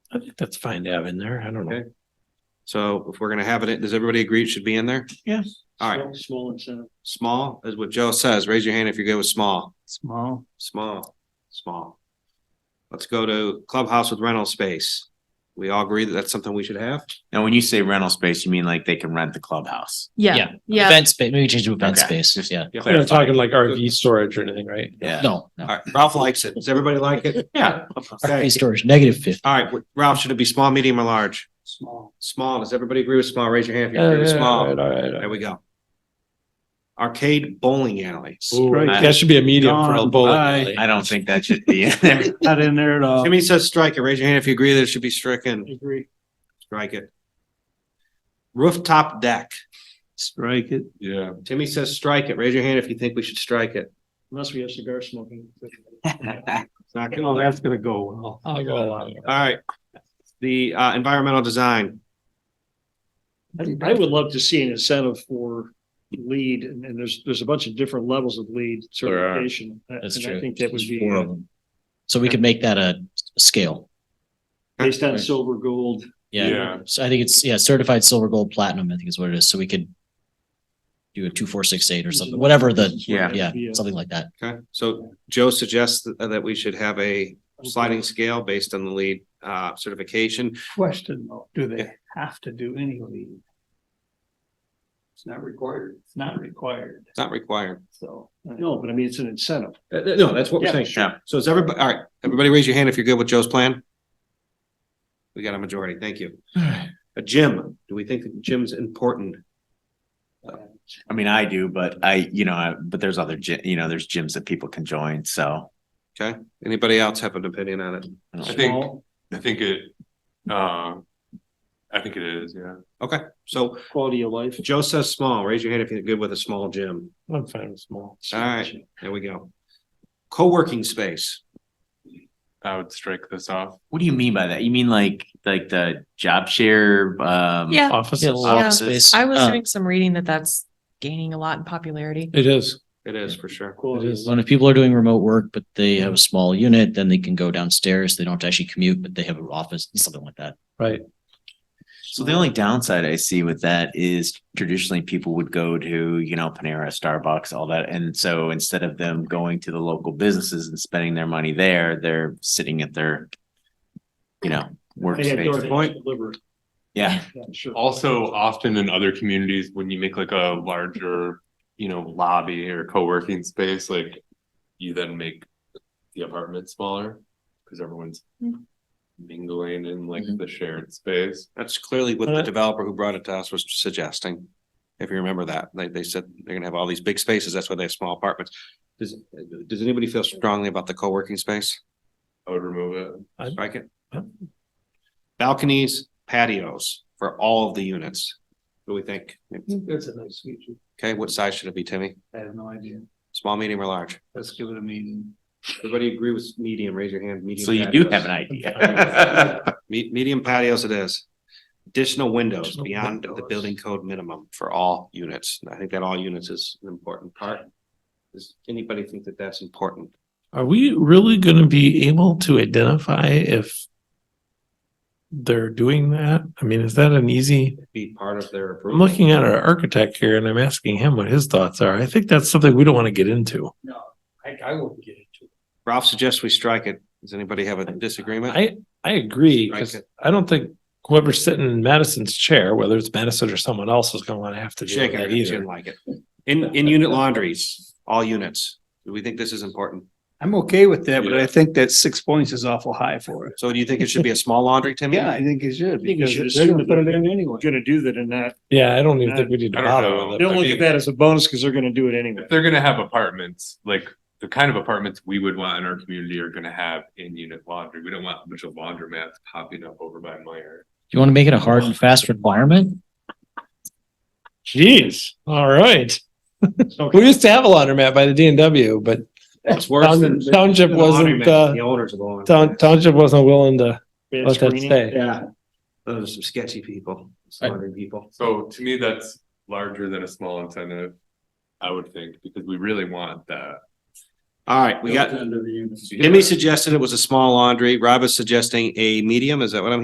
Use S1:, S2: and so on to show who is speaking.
S1: I think that's fine to have in there. I don't know.
S2: Okay. So if we're gonna have it, does everybody agree it should be in there?
S1: Yeah.
S2: All right,
S1: Small incentive.
S2: small is what Joe says. Raise your hand if you're good with small,
S1: Small.
S2: small, small. Let's go to clubhouse with rental space. We all agree that that's something we should have?
S3: Now, when you say rental space, you mean like they can rent the clubhouse?
S4: Yeah, yeah.
S5: Event space, maybe change to event
S3: Okay.
S5: space,
S3: Just-
S5: yeah.
S2: Yeah.
S1: We're not talking like RV storage or anything, right?
S3: Yeah.
S5: No,
S2: All
S5: no.
S2: right, Ralph likes it. Does everybody like it?
S3: Yeah.
S2: Okay.
S5: RV storage, negative fifty.
S2: All right, Ralph, should it be small, medium or large?
S1: Small.
S2: Small. Does everybody agree with small? Raise your hand if you
S1: Yeah,
S2: agree with
S1: yeah, all right,
S2: small.
S1: all right, all
S2: There
S1: right.
S2: we go. Arcade bowling alleys.
S1: Ooh,
S3: Right.
S1: That should be a medium for a
S3: Gone
S1: bullet.
S3: by.
S1: really.
S3: I don't think that should be in there.
S6: Not in there at all.
S2: Jimmy says strike it. Raise your hand if you agree that it should be stricken.
S6: Agree.
S2: Strike it. Rooftop deck.
S6: Strike it.
S2: Yeah. Timmy says strike it. Raise your hand if you think we should strike it.
S6: Unless we have cigar smoking.
S2: It's not good.
S6: Oh, that's gonna go well.
S1: I'll go along.
S2: All right. The uh environmental design.
S6: I I would love to see an incentive for lead and, and there's, there's a bunch of different levels of lead certification. Uh,
S5: That's
S6: and
S5: true.
S6: I think that would
S5: There's
S6: be
S5: four of them. So we could make that a scale.
S6: based on silver, gold.
S5: Yeah. So I think it's, yeah, certified silver, gold, platinum, I think is what it is. So we could do a two, four, six, eight or something, whatever the,
S3: Yeah.
S5: yeah, something like that.
S2: Okay, so Joe suggests that that we should have a sliding scale based on the lead uh certification.
S7: question though, do they have to do any leave? It's not required. It's not required,
S2: It's not required.
S7: so.
S6: No, but I mean, it's an incentive.
S2: Uh, uh, No, that's what we're
S6: Yeah,
S2: saying.
S3: sure.
S2: So is everybody, all right, everybody raise your hand if you're good with Joe's plan? We got a majority. Thank you. A gym. Do we think that gym's important?
S3: I mean, I do, but I, you know, I, but there's other, gy- you know, there's gyms that people can join. So.
S2: Okay, anybody else have an opinion on it?
S3: I don't
S8: I
S3: know.
S8: think, I think it, uh, I think it is, yeah.
S2: Okay, so
S6: Quality of life.
S2: Joe says small. Raise your hand if you're good with a small gym.
S1: I'm fine with small.
S2: All right, there we go. Co-working space.
S8: I would strike this off.
S3: What do you mean by that? You mean like, like the job share? Um,
S4: Yeah.
S1: Offices.
S4: Yeah.
S3: office space?
S4: I was
S5: Uh,
S4: doing some reading that that's gaining a lot in popularity.
S1: It is.
S2: It is for sure.
S1: It is.
S5: When if people are doing remote work, but they have a small unit, then they can go downstairs. They don't have to actually commute, but they have an office, something like that.
S1: Right.
S3: So the only downside I see with that is traditionally people would go to, you know, Panera, Starbucks, all that. And so instead of them going to the local businesses and spending their money there, they're sitting at their, you know,
S6: I had door
S3: workspace.
S6: dash delivery.
S3: Yeah.
S6: Yeah, sure.
S8: Also, often in other communities, when you make like a larger, you know, lobby or co-working space, like you then make the apartment smaller because everyone's
S4: Mhm.
S8: mingling in like
S5: Mhm.
S8: the shared space.
S2: That's clearly what the
S1: Uh,
S2: developer who brought it to us was suggesting. If you remember that, they, they said they're gonna have all these big spaces. That's why they have small apartments. Does, does anybody feel strongly about the co-working space?
S8: I would remove it.
S2: Strike it.
S1: Yep.
S2: Balconies, patios for all of the units. What do we think?
S7: That's a nice feature.
S2: Okay, what size should it be, Timmy?
S7: I have no idea.
S2: Small, medium or large?
S7: Let's give it a meeting.
S2: Everybody agree with medium, raise your hand. Medium
S3: So you do
S2: patios.
S3: have an idea.
S2: Me- medium patios it is. Additional windows beyond the building code minimum for all units. And I think that all units is an important part. Does anybody think that that's important?
S1: Are we really gonna be able to identify if they're doing that? I mean, is that an easy?
S2: Be part of their
S1: I'm
S2: approval?
S1: looking at our architect here and I'm asking him what his thoughts are. I think that's something we don't want to get into.
S7: I, I won't get into it.
S2: Ralph suggests we strike it. Does anybody have a disagreement?
S1: I, I agree,
S2: Strike
S1: because
S2: it.
S1: I don't think whoever's sitting in Madison's chair, whether it's Madison or someone else, is gonna want to have to deal with
S2: Shake our
S1: that
S2: head, she didn't
S1: either.
S2: like it. In, in unit laundries, all units. Do we think this is important?
S7: I'm okay with that, but
S8: Yeah.
S7: I think that six points is awful high for it.
S2: So do you think it should be a small laundry, Timmy?
S7: Yeah, I think it should.
S6: I think you
S7: because
S6: should
S7: they're
S6: assume
S7: gonna
S6: that
S7: put it
S6: they're
S7: in anyway.
S6: gonna do that and that.
S1: Yeah, I don't even think we need to
S8: I don't
S1: bother
S8: know.
S1: with it.
S6: Don't look
S8: think-
S6: at that as a bonus because they're gonna do it anyway.
S8: If they're gonna have apartments, like the kind of apartments we would want in our community are gonna have in-unit laundry. We don't want a bunch of laundromats popping up over by Meyer.
S5: Do you want to make it a hard and fast requirement?
S1: Jeez, all right. We used to have a laundromat by the D and W, but
S2: It's worse than.
S1: Town- township
S2: the
S1: wasn't,
S2: laundromat,
S1: uh,
S2: The owners of the laundry.
S1: town, township wasn't willing to
S6: Bad
S1: let that
S6: screening.
S1: stay.
S2: Yeah. Those are some sketchy people, some laundry people.
S8: So to me, that's larger than a small incentive, I would think, because we really want that.
S2: All right, we got,
S7: Built into the unit.
S2: Jimmy suggested it was a small laundry. Rob is suggesting a medium. Is that what I'm